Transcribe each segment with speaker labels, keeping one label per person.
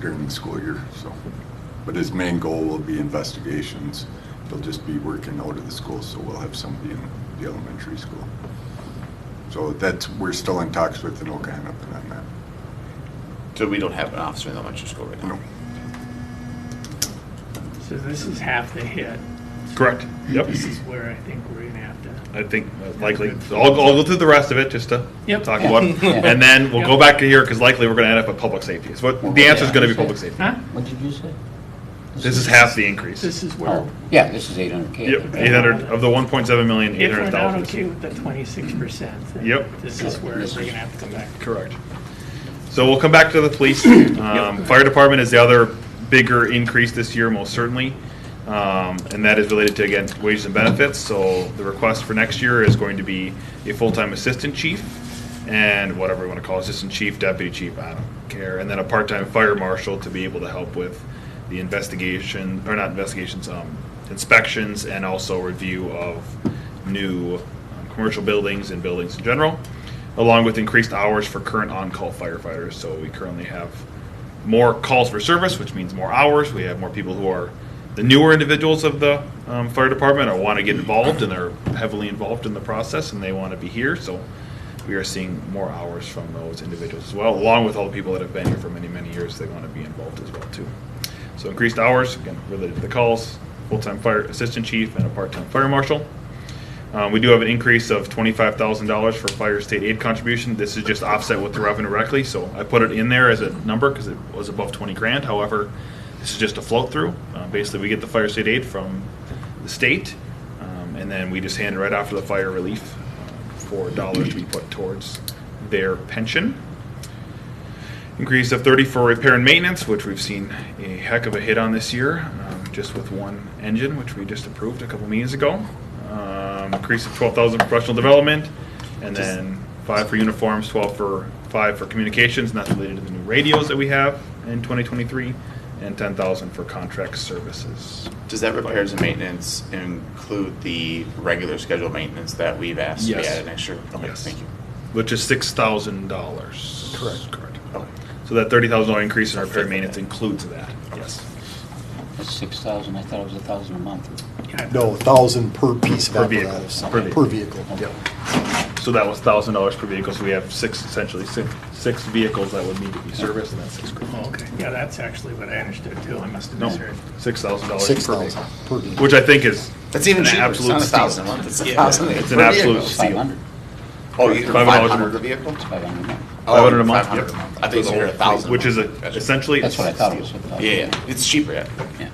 Speaker 1: during the school year, so. But his main goal will be investigations. He'll just be working out of the school, so we'll have somebody in the elementary school. So that's, we're still in talks with Anoka Hennepin on that.
Speaker 2: So we don't have an officer in the elementary school right now?
Speaker 1: No.
Speaker 3: So this is half the hit.
Speaker 4: Correct. Yep.
Speaker 3: This is where I think we're gonna have to,
Speaker 4: I think uh, likely. So I'll, I'll go through the rest of it just to
Speaker 3: Yep.
Speaker 4: talk about it. And then we'll go back to here because likely we're going to end up at public safety. So what, the answer is going to be public safety.
Speaker 3: huh?
Speaker 5: What did you say?
Speaker 4: This is half the increase.
Speaker 3: This is where,
Speaker 5: Oh, yeah, this is eight hundred K.
Speaker 4: Yep, 800, of the 1.7 million,
Speaker 3: if we're not
Speaker 4: 800,000.
Speaker 3: okay with the twenty-six percent.
Speaker 4: Yep.
Speaker 3: This is where we're gonna have to come back.
Speaker 4: Correct. So we'll come back to the police. Um, Fire department is the other bigger increase this year, most certainly. Um, And that is related to, again, wages and benefits. So the request for next year is going to be a full-time assistant chief and whatever we want to call it, assistant chief, deputy chief, I don't care. And then a part-time fire marshal to be able to help with the investigation, or not investigations, um, inspections and also review of new um, commercial buildings and buildings in general along with increased hours for current on-call firefighters. So we currently have more calls for service, which means more hours. We have more people who are the newer individuals of the um, fire department or want to get involved and are heavily involved in the process and they want to be here. So we are seeing more hours from those individuals as well, along with all the people that have been here for many, many years. They want to be involved as well too. So increased hours, again, related to the calls, full-time fire assistant chief and a part-time fire marshal. Um, we do have an increase of twenty-five thousand dollars for fire state aid contribution. This is just offset with the revenue directly, so I put it in there as a number because it was above twenty grand. However, this is just a float through. Uh, basically, we get the fire state aid from the state, um, and then we just hand it right off to the fire relief uh, for dollars to be put towards their pension. Increase of 30 for repair and maintenance, which we've seen a heck of a hit on this year, um, just with one engine, which we just approved a couple meetings ago. Um, Increase of 12,000 for professional development, and then five for uniforms, 12 for, five for communications, and that's related to the new radios that we have in 2023, and 10,000 for contract services.
Speaker 2: Does that repairs and maintenance include the regular scheduled maintenance that we've asked to be
Speaker 4: Yes.
Speaker 2: added next year? Okay,
Speaker 4: Yes.
Speaker 2: Thank you.
Speaker 4: Which is $6,000.
Speaker 2: Correct.
Speaker 4: Correct.
Speaker 2: Okay.
Speaker 4: So that $30,000 increase in our repair and maintenance includes that, yes.
Speaker 5: That's six thousand, I thought it was a thousand a month.
Speaker 6: No, thousand per piece of
Speaker 4: Per vehicle,
Speaker 6: apparatus.
Speaker 4: per vehicle.
Speaker 6: vehicle.
Speaker 4: So that was thousand dollars per vehicle, so we have six, essentially six, six vehicles that would need to be serviced, and that's six grand.
Speaker 3: Oh, okay. Yeah, that's actually what I understood too. I must have
Speaker 4: No,
Speaker 3: misheard.
Speaker 4: six thousand dollars
Speaker 6: Six
Speaker 4: per
Speaker 6: thousand
Speaker 4: vehicle,
Speaker 6: per vehicle.
Speaker 4: which I think is.
Speaker 2: That's even
Speaker 4: an
Speaker 2: cheaper. It's
Speaker 4: absolute
Speaker 2: not a
Speaker 4: steal.
Speaker 2: thousand a month. It's a
Speaker 3: Yeah.
Speaker 2: thousand.
Speaker 4: It's
Speaker 2: per
Speaker 4: an absolute
Speaker 2: vehicle.
Speaker 5: Five
Speaker 4: steal.
Speaker 5: hundred,
Speaker 2: Oh, you five
Speaker 4: Five dollars
Speaker 2: hundred
Speaker 4: per-
Speaker 2: a vehicle?
Speaker 5: five hundred a month.
Speaker 2: Oh,
Speaker 4: Five hundred a month,
Speaker 2: 500
Speaker 4: yeah.
Speaker 2: I think it's a thousand. a
Speaker 4: Which is
Speaker 2: month.
Speaker 4: a-
Speaker 2: Gotcha.
Speaker 4: essentially.
Speaker 5: That's what I thought it was. a thousand.
Speaker 2: Yeah, yeah, it's cheaper, yeah.
Speaker 5: Yeah.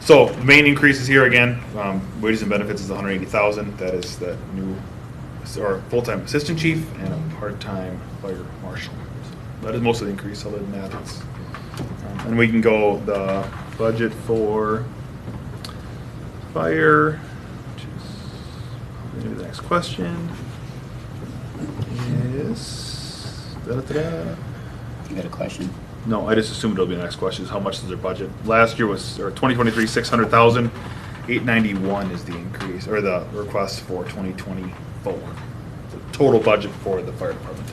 Speaker 4: So the main increases here again, um, wages and benefits is 180,000. That is the new, or full-time assistant chief and a part-time fire marshal. So That is most of the increase, other than that, it's, um, and we can go the budget for fire, which is maybe the next question. Is, da-da-da-da.
Speaker 5: You got a question?
Speaker 4: No, I just assumed it'll be the next question, is how much is their budget? Last year was, or twenty twenty-three, six hundred thousand, eight ninety-one is the increase, or the request for twenty twenty-four. The Total budget for the fire department.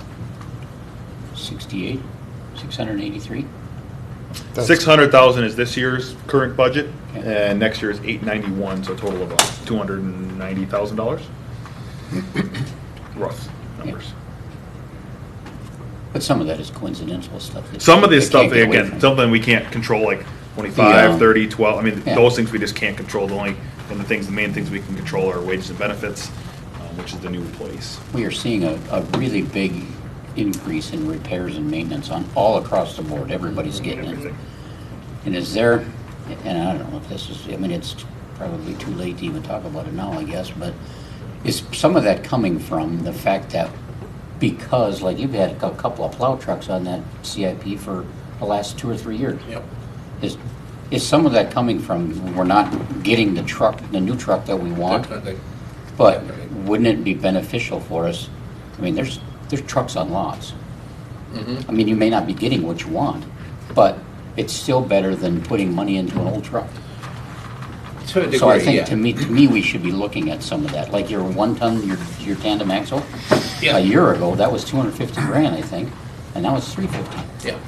Speaker 5: Sixty-eight, six hundred and eighty-three?
Speaker 6: That's-
Speaker 4: Six hundred thousand is this year's current budget,
Speaker 5: Okay.
Speaker 4: and next year is eight ninety-one, so a total of about two hundred and ninety thousand dollars. Rough numbers.
Speaker 5: But some of that is coincidental stuff. that
Speaker 4: Some of this
Speaker 5: they can't
Speaker 4: stuff,
Speaker 5: get away from.
Speaker 4: again, something we can't control, like
Speaker 5: Yeah.
Speaker 4: 25, 30, 12, I mean,
Speaker 5: Yeah.
Speaker 4: those things we just can't control. The only, and the things, the main things we can control are wages and benefits, um, which is the new employees.
Speaker 5: We are seeing a, a really big increase in repairs and maintenance on, all across the board. Everybody's getting it.
Speaker 4: Everything.
Speaker 5: And is there, and I don't know if this is, I mean, it's probably too late to even talk about it now, I guess, but is some of that coming from the fact that because, like, you've had a cou- couple of plow trucks on that CIP for the last two or three years? Yep. Is, is some of that coming from, we're not getting the truck, the new truck that we want? But wouldn't it be beneficial for us? I mean, there's, there's trucks on lots. I mean, you may not be getting what you want, but it's still better than putting money into an old truck.
Speaker 7: To a
Speaker 5: So I
Speaker 7: degree,
Speaker 5: think,
Speaker 7: yeah.
Speaker 5: to me, to me, we should be looking at some of that, like your one-ton, your, your tandem axle.
Speaker 7: Yeah.
Speaker 5: A year ago, that was two hundred fifty grand, I think, and now it's three fifty.
Speaker 7: Yeah,